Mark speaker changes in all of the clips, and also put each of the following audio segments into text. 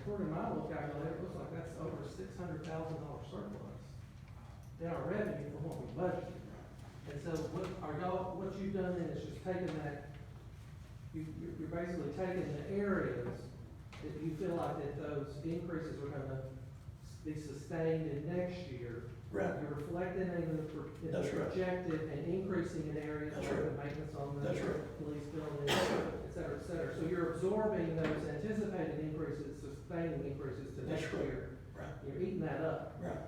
Speaker 1: according to my little calculator, it looks like that's over six hundred thousand dollar surplus in our revenue from what we budgeted. And so what, are y'all, what you've done then is just taken that, you, you're- you're basically taking the areas that you feel like that those increases are gonna be sustained in next year.
Speaker 2: Right.
Speaker 1: You're reflecting in the, pro- in the
Speaker 2: That's right.
Speaker 1: projected and increasing in areas
Speaker 2: That's
Speaker 1: like the
Speaker 2: right.
Speaker 1: maintenance on the
Speaker 2: That's right.
Speaker 1: police building, et cetera, et cetera. So you're absorbing those anticipated increases, sustaining increases to next
Speaker 2: That's right.
Speaker 1: year.
Speaker 2: Right,
Speaker 1: You're eating that up,
Speaker 2: right,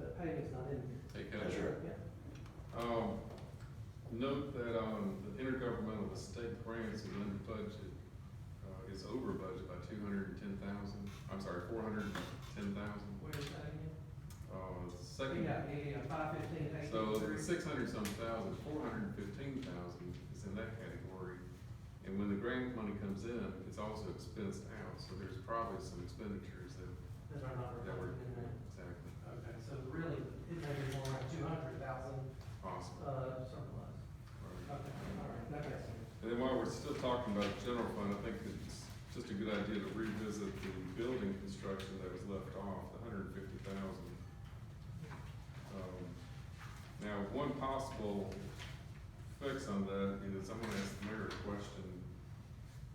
Speaker 1: but payment's not in there.
Speaker 3: Hey, can I-
Speaker 2: that's right.
Speaker 1: Yeah.
Speaker 3: Um, note that, um, the intergovernmental estate grants is under budget, uh, is over budget by two hundred and ten thousand, I'm sorry, four hundred and ten thousand,
Speaker 1: Where is that again?
Speaker 3: uh,
Speaker 1: Yeah,
Speaker 3: second.
Speaker 1: yeah, yeah, five fifteen, eight
Speaker 3: So
Speaker 1: fifty-three.
Speaker 3: six hundred some thousand, four hundred and fifteen thousand is in that category. And when the grant money comes in, it's also expensed out, so there's probably some expenditures that,
Speaker 1: That's our number.
Speaker 3: that were,
Speaker 1: in there.
Speaker 3: exactly,
Speaker 1: Okay, so really, it may be more like two hundred thousand,
Speaker 3: possible.
Speaker 1: uh, surplus.
Speaker 3: right.
Speaker 1: Okay, all right, that makes sense.
Speaker 3: And then while we're still talking about general fund, I think it's just a good idea to revisit the building construction that was left off, the hundred and fifty thousand. Um, Now, one possible fix on that is, I'm gonna ask the mayor a question.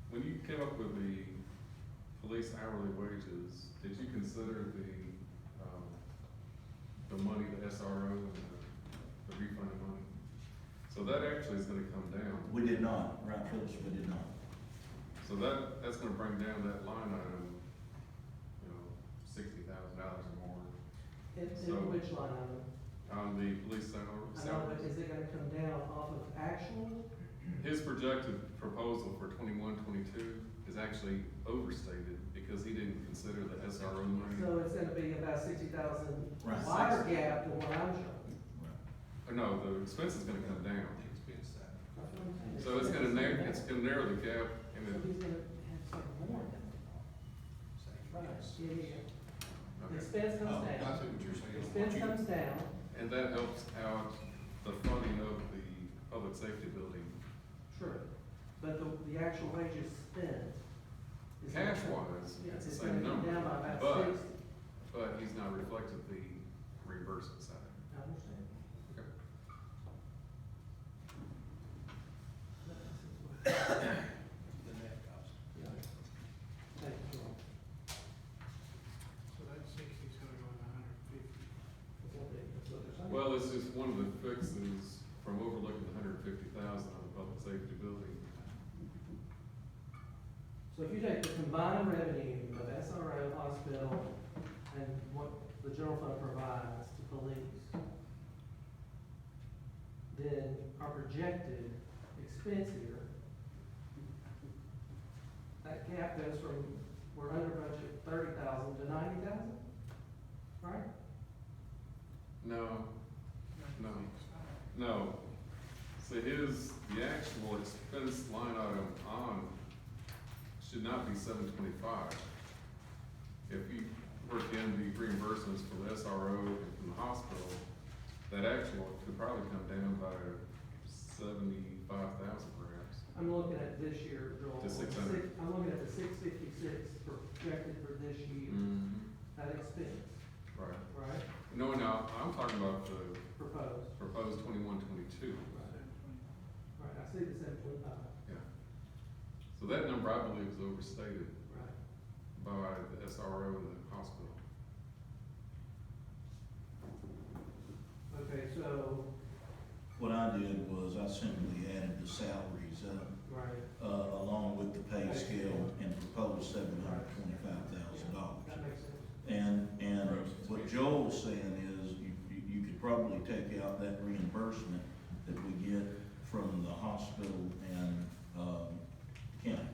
Speaker 3: When you came up with the police hourly wages, did you consider the, um, the money, the SRO, and the- the refund money? So that actually is gonna come down.
Speaker 2: We did not, right, Phillips, we did not.
Speaker 3: So that, that's gonna bring down that line item, you know, sixty thousand dollars or more
Speaker 1: In,
Speaker 3: So-
Speaker 1: in which line item?
Speaker 3: on the police salary.
Speaker 1: I know, but
Speaker 3: salaries.
Speaker 1: is it gonna come down off of actual?
Speaker 3: His projected proposal for twenty-one, twenty-two is actually overstated because he didn't consider the SRO money.
Speaker 1: So it's gonna be about sixty thousand
Speaker 2: Right.
Speaker 1: wider gap than what I'm showing.
Speaker 3: Or Uh, no, the expense is gonna come down.
Speaker 1: That's what I'm saying.
Speaker 3: So it's gonna narrow, it's gonna narrow the gap
Speaker 1: So
Speaker 3: and
Speaker 1: he's
Speaker 3: it,
Speaker 1: gonna have some more. Right, yeah, yeah, yeah.
Speaker 3: okay. Oh,
Speaker 1: Expense comes down,
Speaker 4: Oh, what you're saying.
Speaker 1: expense comes down,
Speaker 3: And that helps out the funding of the public safety building.
Speaker 1: true, but the, the actual wages spent. is gonna-
Speaker 3: Cash wise,
Speaker 1: Yeah,
Speaker 3: it's the
Speaker 1: gonna
Speaker 3: same
Speaker 1: come
Speaker 3: number.
Speaker 1: Down by about
Speaker 3: but-
Speaker 1: sixty,
Speaker 3: But he's not reflected the reimbursement side.
Speaker 1: I understand.
Speaker 3: Okay.
Speaker 4: The net cost.
Speaker 1: Yeah. Thank you, Joel.
Speaker 5: So that's sixty, so we're going a hundred and fifty.
Speaker 1: That's what they- that's what they're saying.
Speaker 3: Well, it's just one of the fixes from overlooking the hundred and fifty thousand on the public safety building.
Speaker 1: So if you take the combined revenue of SRO, hospital, and what the general fund provides to police, then our projected expense here, that gap goes from, we're under budget thirty thousand to ninety thousand, right?
Speaker 3: No, No. no. So his, the actual expense line item on should not be seven twenty-five. If you work in the reimbursements from the SRO and from the hospital, that actual could probably come down by seventy-five thousand perhaps.
Speaker 1: I'm looking at this year, Joel.
Speaker 3: The 600.
Speaker 1: I'm looking at the six fifty-six projected for this year,
Speaker 3: Mm.
Speaker 1: that expense,
Speaker 3: Right.
Speaker 1: right,
Speaker 3: No, no, I'm talking about the
Speaker 1: proposed.
Speaker 3: proposed twenty-one, twenty-two.
Speaker 1: Right, I see the seven twenty-five,
Speaker 3: So that number, I believe, is overstated
Speaker 1: right.
Speaker 3: by the SRO and the hospital.
Speaker 1: Okay, so,
Speaker 2: What I did was I simply added the salaries up,
Speaker 1: right,
Speaker 2: uh, along with the pay scale and proposed seven hundred twenty-five thousand
Speaker 1: that
Speaker 2: dollars.
Speaker 1: makes sense.
Speaker 2: And, and what Joel's saying is you, you, you could probably take out that reimbursement that we get from the hospital and, um, county.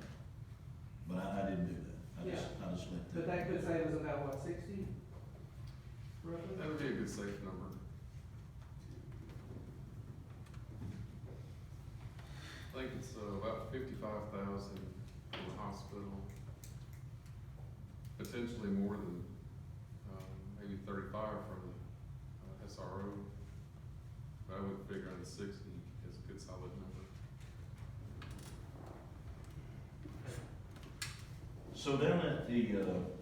Speaker 2: But I, I didn't do that. I just, I just let that.
Speaker 1: But that could save us about, what, sixty? Roughly?
Speaker 3: That would be a good safe number. I think it's uh, about fifty-five thousand for the hospital. Potentially more than, um, maybe thirty-five from the uh, SRO. But I would figure on sixty is a good solid number.
Speaker 2: So down at the, uh,